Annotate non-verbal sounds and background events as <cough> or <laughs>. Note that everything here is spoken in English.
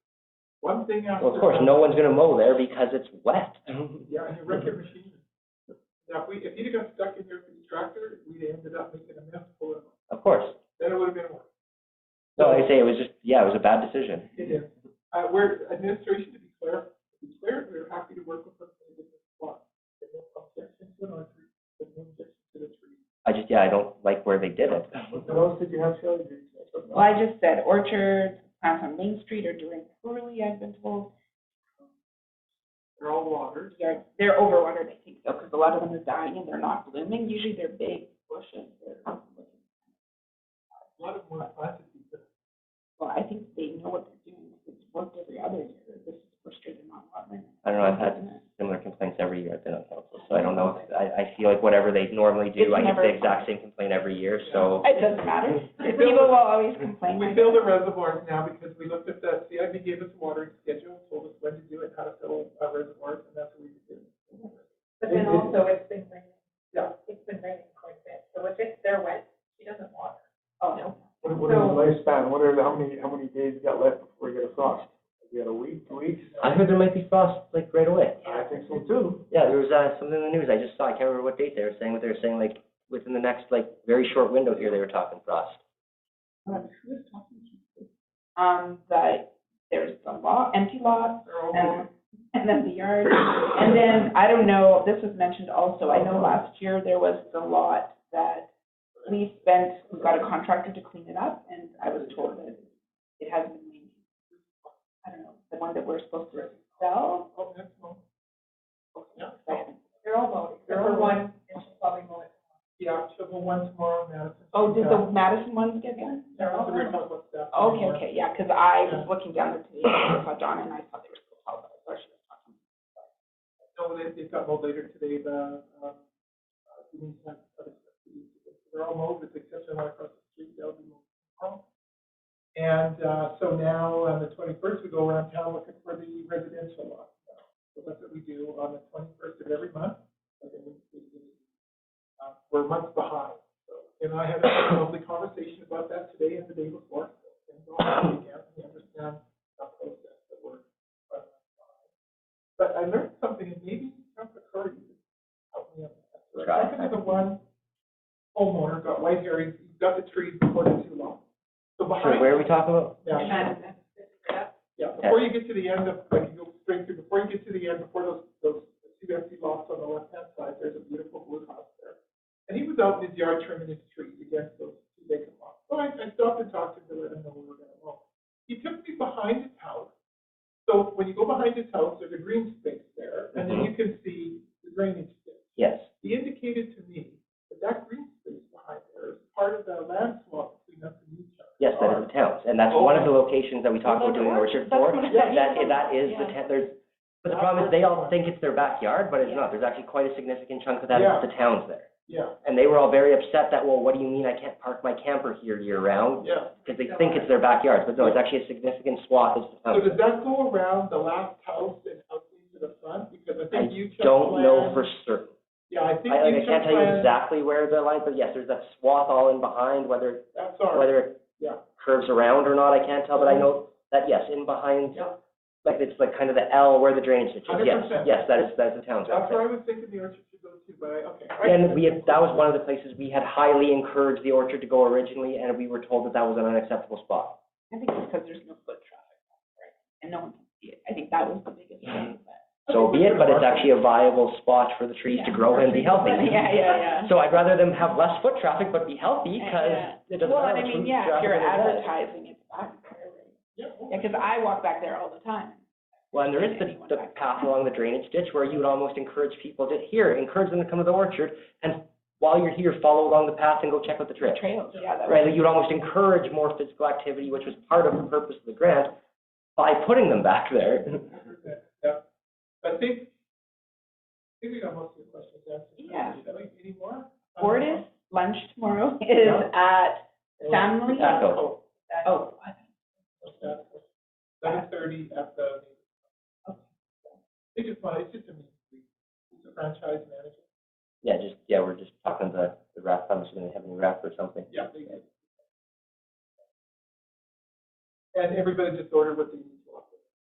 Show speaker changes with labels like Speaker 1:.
Speaker 1: One thing after.
Speaker 2: Well, of course, no one's gonna mow there because it's wet.
Speaker 1: Yeah, and you wreck your machine. Now, if we, if you'd have got stuck in your tractor, we'd have ended up making a mess full of,
Speaker 2: Of course.
Speaker 1: then it would have been worse.
Speaker 2: So I say it was just, yeah, it was a bad decision.
Speaker 1: It is. Uh, we're, administration, to be clear, to be clear, we're happy to work with them in this spot. There's no objection to an artery, there's no objection to the tree.
Speaker 2: I just, yeah, I don't like where they did it.
Speaker 1: What else did you have, Shelley? Did you-
Speaker 3: Well, I just said orchards, plants on Main Street are doing poorly, I've been told.
Speaker 1: They're all watered.
Speaker 3: They're, they're overwatered, I think, though, because a lot of them are dying and they're not blooming. Usually they're big bushes. They're,
Speaker 1: A lot of them were planted because
Speaker 3: well, I think they know what they're doing. It's worked every other year. This is frustrating on watering.
Speaker 2: I don't know, I've had similar complaints every year I've been on council, so I don't know. if- I, I feel like whatever they normally do,
Speaker 3: It's
Speaker 2: I get
Speaker 3: never-
Speaker 2: the exact same complaint every year, so.
Speaker 3: It doesn't matter.
Speaker 1: We
Speaker 3: People
Speaker 1: build-
Speaker 3: will always complain.
Speaker 1: We
Speaker 3: like
Speaker 1: fill the
Speaker 3: that.
Speaker 1: reservoirs now because we looked at that, CIB gave us a watering schedule, told us when to do it, how to fill our reservoirs, and that's what we did.
Speaker 4: But then also, it's been raining.
Speaker 1: Yeah.
Speaker 4: It's been raining quite a bit, so if it's, they're wet, she doesn't water.
Speaker 3: Oh, no.
Speaker 5: What, what is the lifespan? What are, the- how many, how many days you got left before you get a frost? You got a week, two weeks?
Speaker 2: I heard there might be frost like right away.
Speaker 5: I think so too.
Speaker 2: Yeah, there was, uh, something in the news I just saw, I can't remember what date they were saying, but they were saying like, within the next, like, very short window here, they were talking frost.
Speaker 3: Um, but there's the lot, empty lot,
Speaker 1: They're all
Speaker 3: and, and then the yard. And then, I don't know, this was mentioned also, I know last year there was the lot that we spent, we got a contractor to clean it up, and I was told that it hasn't been maintained. I don't know, the one that we're supposed to sell,
Speaker 1: Oh, that's all.
Speaker 3: I haven't-
Speaker 4: They're all mowed,
Speaker 1: They're
Speaker 4: except for
Speaker 1: all
Speaker 4: one, and she'll probably mow it.
Speaker 1: Yeah, shovel one tomorrow, Madison.
Speaker 3: oh, did the Madison ones get done?
Speaker 1: That was the original one, that's-
Speaker 3: Okay, okay, yeah, because I was looking down there today, and I saw Donna, and I thought they were supposed to sell, but I thought she was talking.
Speaker 1: No, they, they got mowed later today, the, um, uh, you need to have- they're all mowed, with the exception of one across the street, they'll be mowed tomorrow. And, uh, so now, on the twenty-first, we go around town looking for the residential lot. So that's what we do on the twenty-first of every month. And then we- we- uh, We're months behind, so, and I had a lovely conversation about that today and the day before. so, And go on again, we understand the process that we're, uh, but I learned something, and maybe Councilor Curry could help me out. with that.
Speaker 2: Try.
Speaker 1: I think the one homeowner got white hairs, he got the trees before they're too long. So
Speaker 2: Sure,
Speaker 1: behind.
Speaker 2: where are we talking about?
Speaker 1: Yeah, yeah, before you get to the end of, like, you go straight through, before you get to the end, before those, those two empty lots on the left-hand side, there's a beautiful blue house there. And he was out in his yard trimming his trees against those two vacant lots. So I, I stopped and talked to him to let him know we were gonna mow. He took me behind his house. So when you go behind his house, there's a green space there, and then
Speaker 2: Mm-hmm.
Speaker 1: you can see the drainage ditch
Speaker 2: Yes.
Speaker 1: he indicated to me that that green space behind there is part of the land swap between us and each other.
Speaker 2: Yes, that is the towns, and that's one of the locations that we talked about doing orchard for. That, that is the town, there's, but the problem is, they all think it's their backyard, but it's not. There's actually quite a significant chunk of that is the towns there.
Speaker 1: Yeah,
Speaker 2: And they were all very upset that, well, what do you mean I can't park my camper here year-round?
Speaker 1: yeah.
Speaker 2: Because they think it's their backyard, but no, it's actually a significant swath is the
Speaker 1: So
Speaker 2: towns.
Speaker 1: does that go around the last house and out into the front? Because I
Speaker 2: I
Speaker 1: think you checked.
Speaker 2: don't
Speaker 1: land-
Speaker 2: know for certain.
Speaker 1: Yeah, I think
Speaker 2: I,
Speaker 1: you
Speaker 2: like, I can't
Speaker 1: checked
Speaker 2: tell you
Speaker 1: land.
Speaker 2: exactly where the line, but yes, there's that swath all in behind, whether,
Speaker 1: That's all right,
Speaker 2: whether it
Speaker 1: yeah,
Speaker 2: curves around or not, I can't tell, but I know that, yes, in behind
Speaker 1: yeah.
Speaker 2: Like it's like kind of the L where the drainage ditch is, yes,
Speaker 1: 100%.
Speaker 2: yes, that is, that is the town's.
Speaker 1: That's where I was thinking the orchard should go to, but I, okay. I-
Speaker 2: And we had, that was one of the places we had highly encouraged the orchard to go originally, and we were told that that was an unacceptable spot.
Speaker 3: I think it's because there's no foot traffic, right, and no one can see it. I think that was the biggest thing, but.
Speaker 2: So be it, but it's actually a viable spot for the trees to grow and be healthy.
Speaker 3: Yeah, yeah, yeah.
Speaker 2: So I'd rather them have less foot traffic, but be healthy, because it doesn't
Speaker 3: Well,
Speaker 2: matter.
Speaker 3: and I
Speaker 2: foot
Speaker 3: mean, yeah,
Speaker 2: traffic
Speaker 3: if you're
Speaker 2: is bad.
Speaker 3: advertising, it's back there, right?
Speaker 1: Yeah,
Speaker 3: Yeah, because I walk back there all the time.
Speaker 2: Well, and there is the, the path along the drainage ditch where you would almost encourage people to, here, encourage them to come to the orchard, and while you're here, follow along the path and go check out the trail.
Speaker 3: Trails, yeah, that
Speaker 2: right,
Speaker 3: was.
Speaker 2: like you'd almost encourage more physical activity, which was part of the purpose of the grant, by putting them back there. <laughs>
Speaker 1: Yeah. I think, I think we got most of your questions answered.
Speaker 3: Yeah.
Speaker 1: Shall we, any more? Uh,
Speaker 3: Fortis lunch tomorrow <laughs> is at Stanley.
Speaker 2: Echo.
Speaker 3: Oh, what?
Speaker 1: Seven thirty at the. They just want, it's just a, it's a franchise manager.
Speaker 2: Yeah, just, yeah, we're just talking to the rep, I'm just gonna have any rep or something.
Speaker 1: Yeah. they do. And everybody just ordered what they need.